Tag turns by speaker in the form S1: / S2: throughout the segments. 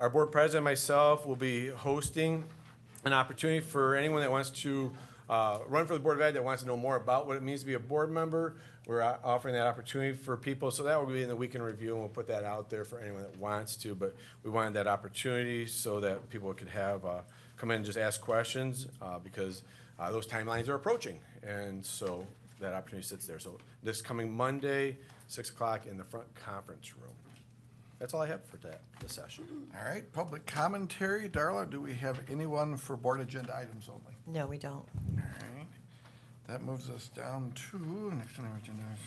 S1: Our board president and myself will be hosting an opportunity for anyone that wants to uh, run for the Board of Ed, that wants to know more about what it means to be a board member. We're uh, offering that opportunity for people, so that will be in the weekend review, and we'll put that out there for anyone that wants to. But we wanted that opportunity so that people could have, uh, come in and just ask questions, uh, because uh, those timelines are approaching. And so that opportunity sits there. So this coming Monday, 6 o'clock in the front conference room. That's all I have for that, this session.
S2: All right, public commentary. Darla, do we have anyone for board agenda items only?
S3: No, we don't.
S2: All right. That moves us down to, next on our agenda is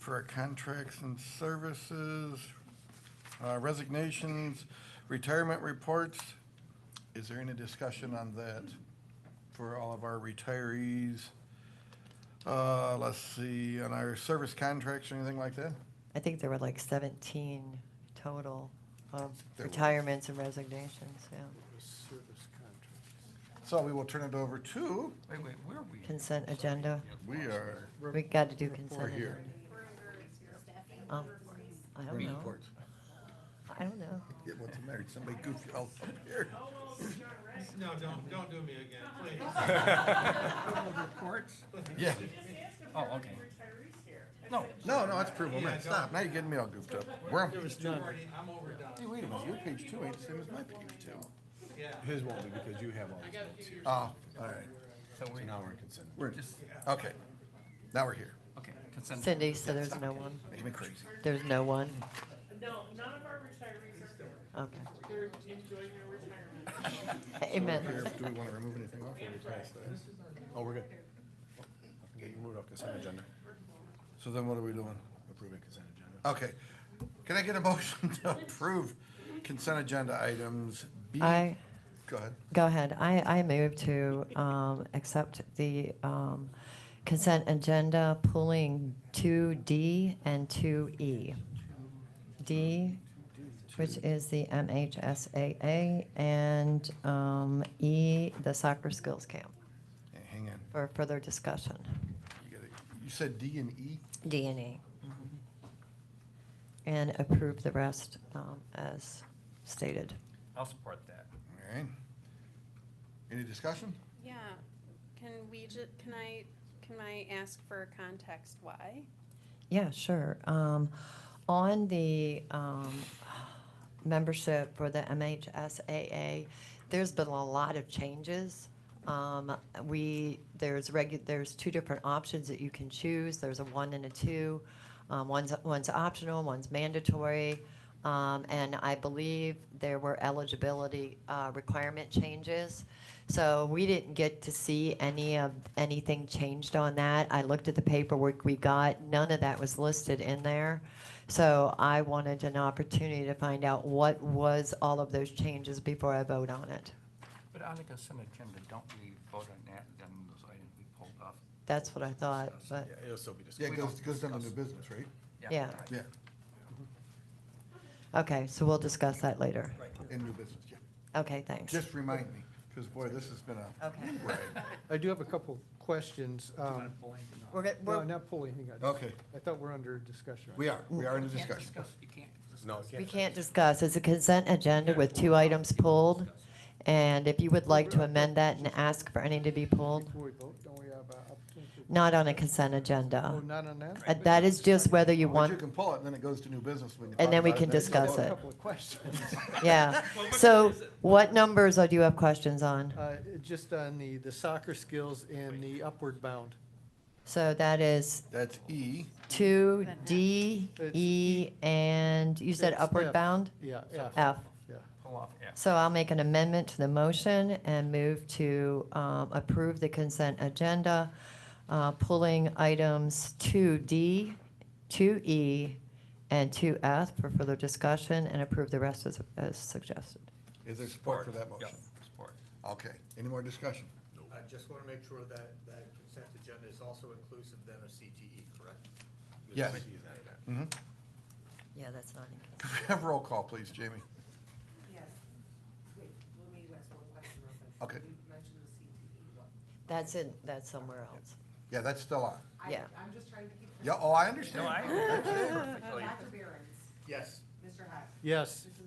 S2: for our contracts and services, uh, resignations, retirement reports. Is there any discussion on that for all of our retirees? Uh, Let's see, on our service contracts or anything like that?
S3: I think there were like 17 total of
S2: There were.
S3: retirements and resignations, yeah.
S2: So we will turn it over to,
S4: Wait, wait, where are we?
S3: Consent agenda.
S2: we are,
S3: We got to do consent.
S2: we're
S3: agenda.
S2: here.
S3: Oh, I don't know.
S2: Reports.
S3: I don't know.
S2: Yeah, what's the matter? Did Somebody goofy all up here.
S5: No, don't, don't do me again, please.
S4: Reports?
S2: Yeah.
S4: Oh, okay. No,
S2: No, no, that's provable. Man, stop. Now you're getting me all goofed up. We're on.
S5: There was two already, I'm overdone,
S2: Hey, wait a minute. Your page two ain't the same as my page two.
S5: yeah.
S1: His won't be because you have all these notes here.
S2: Oh, all right.
S4: so we,
S1: So now we're in consent.
S2: We're
S4: just,
S2: okay. Now we're here.
S4: okay, consent.
S3: Cindy, so there's no one.
S2: Making me crazy.
S3: There's no one.
S6: No, none of our retirees are there.
S3: Okay.
S6: They're enjoying their retirement.
S3: Amen.
S2: Here, Do we want to remove anything off? or we pass that?
S1: Oh, we're good. Yeah, you moved off consent agenda,
S2: So then what are we doing?
S1: approving consent agenda.
S2: Okay. Can I get a motion to approve consent agenda items B?
S3: I,
S2: Go ahead.
S3: go ahead. I, I move to um, accept the um, consent agenda pulling 2D and 2E. D, which is the MHSAA, and um, E, the soccer skills camp,
S2: Hey, Hang on.
S3: for further discussion.
S2: You gotta, you said D and E?
S3: D and E. And approve the rest um, as stated.
S4: I'll support that.
S2: All right. Any discussion?
S7: Yeah, can we ju, can I, can I ask for context why?
S3: Yeah, sure. Um, on the, um, membership for the MHSAA, there's been a lot of changes. Um, we, there's regu, there's two different options that you can choose. There's a one and a two. Um, one's, one's optional, one's mandatory. Um, and I believe there were eligibility, uh, requirement changes. So we didn't get to see any of, anything changed on that. I looked at the paperwork we got, none of that was listed in there. So I wanted an opportunity to find out what was all of those changes before I vote on it.
S4: But on the consent agenda, don't we vote on that, then those items we pulled off?
S3: That's what I thought, but,
S1: Yeah, it'll still be discussed.
S2: Yeah, it goes, goes down to new business, right?
S3: Yeah.
S4: all right.
S2: Yeah,
S3: okay, so we'll discuss that later.
S2: in new business, yeah.
S3: Okay, thanks.
S2: Just remind me, because boy, this has been a.
S3: Okay.
S2: Right.
S8: I do have a couple questions. Um,
S3: We're, go-
S8: No,
S3: we're,
S8: not pulling anything out.
S2: Okay,
S8: I thought we're under discussion.
S2: we are, we are in a
S4: You can't
S2: discussion.
S4: discuss, you can't discuss.
S1: No,
S3: we
S1: can't.
S3: can't discuss. It's a consent agenda with two items pulled. And if you would like to amend that and ask for any to be pulled,
S8: Before we vote, don't we have an opportunity? to-
S3: not on a consent
S8: Oh,
S3: agenda.
S8: not on that?
S3: Uh, That is just whether you
S2: But you
S3: want,
S2: can pull it, and then it goes to new business. when you
S3: And
S2: talk
S3: then we
S2: about
S3: can
S2: next time.
S8: Well,
S3: discuss
S8: A
S3: it.
S8: couple of questions.
S3: yeah. So what numbers do you have questions on?
S8: Uh, Just on the, the soccer skills and the upward bound.
S3: So that is
S2: That's E,
S3: two,
S7: But not-
S3: D,
S8: It's
S3: E, and you said
S8: It's
S3: upward
S8: F.
S3: bound?
S8: Yeah, yeah,
S3: F.
S8: yeah.
S4: Pull off F.
S3: So I'll make an amendment to the motion and move to um, approve the consent agenda, uh, pulling items 2D, 2E, E, and 2F for further discussion, and approve the rest as as suggested.
S2: is there support for that motion?
S4: Yep, Support.
S2: Okay, any more discussion?
S9: I just want to make sure that, that consent agenda is also inclusive then of CTE, correct?
S2: Yes. Mhm.
S3: Yeah, that's not
S2: Could we Have roll call, please, Jamie.
S6: Yes. Wait, let me ask one question real quick.
S2: Okay.
S6: You mentioned the CTE one.
S3: That's in, that's somewhere else.
S2: Yeah, that's still on.
S6: I-
S3: Yeah.
S6: I'm just trying to keep.
S2: Yeah, oh, I understand.
S4: No, I,
S2: That's it.
S4: perfectly.
S6: Dr. Behrens,
S9: Yes.
S6: Mr. Hack,
S8: Yes.
S6: Mrs.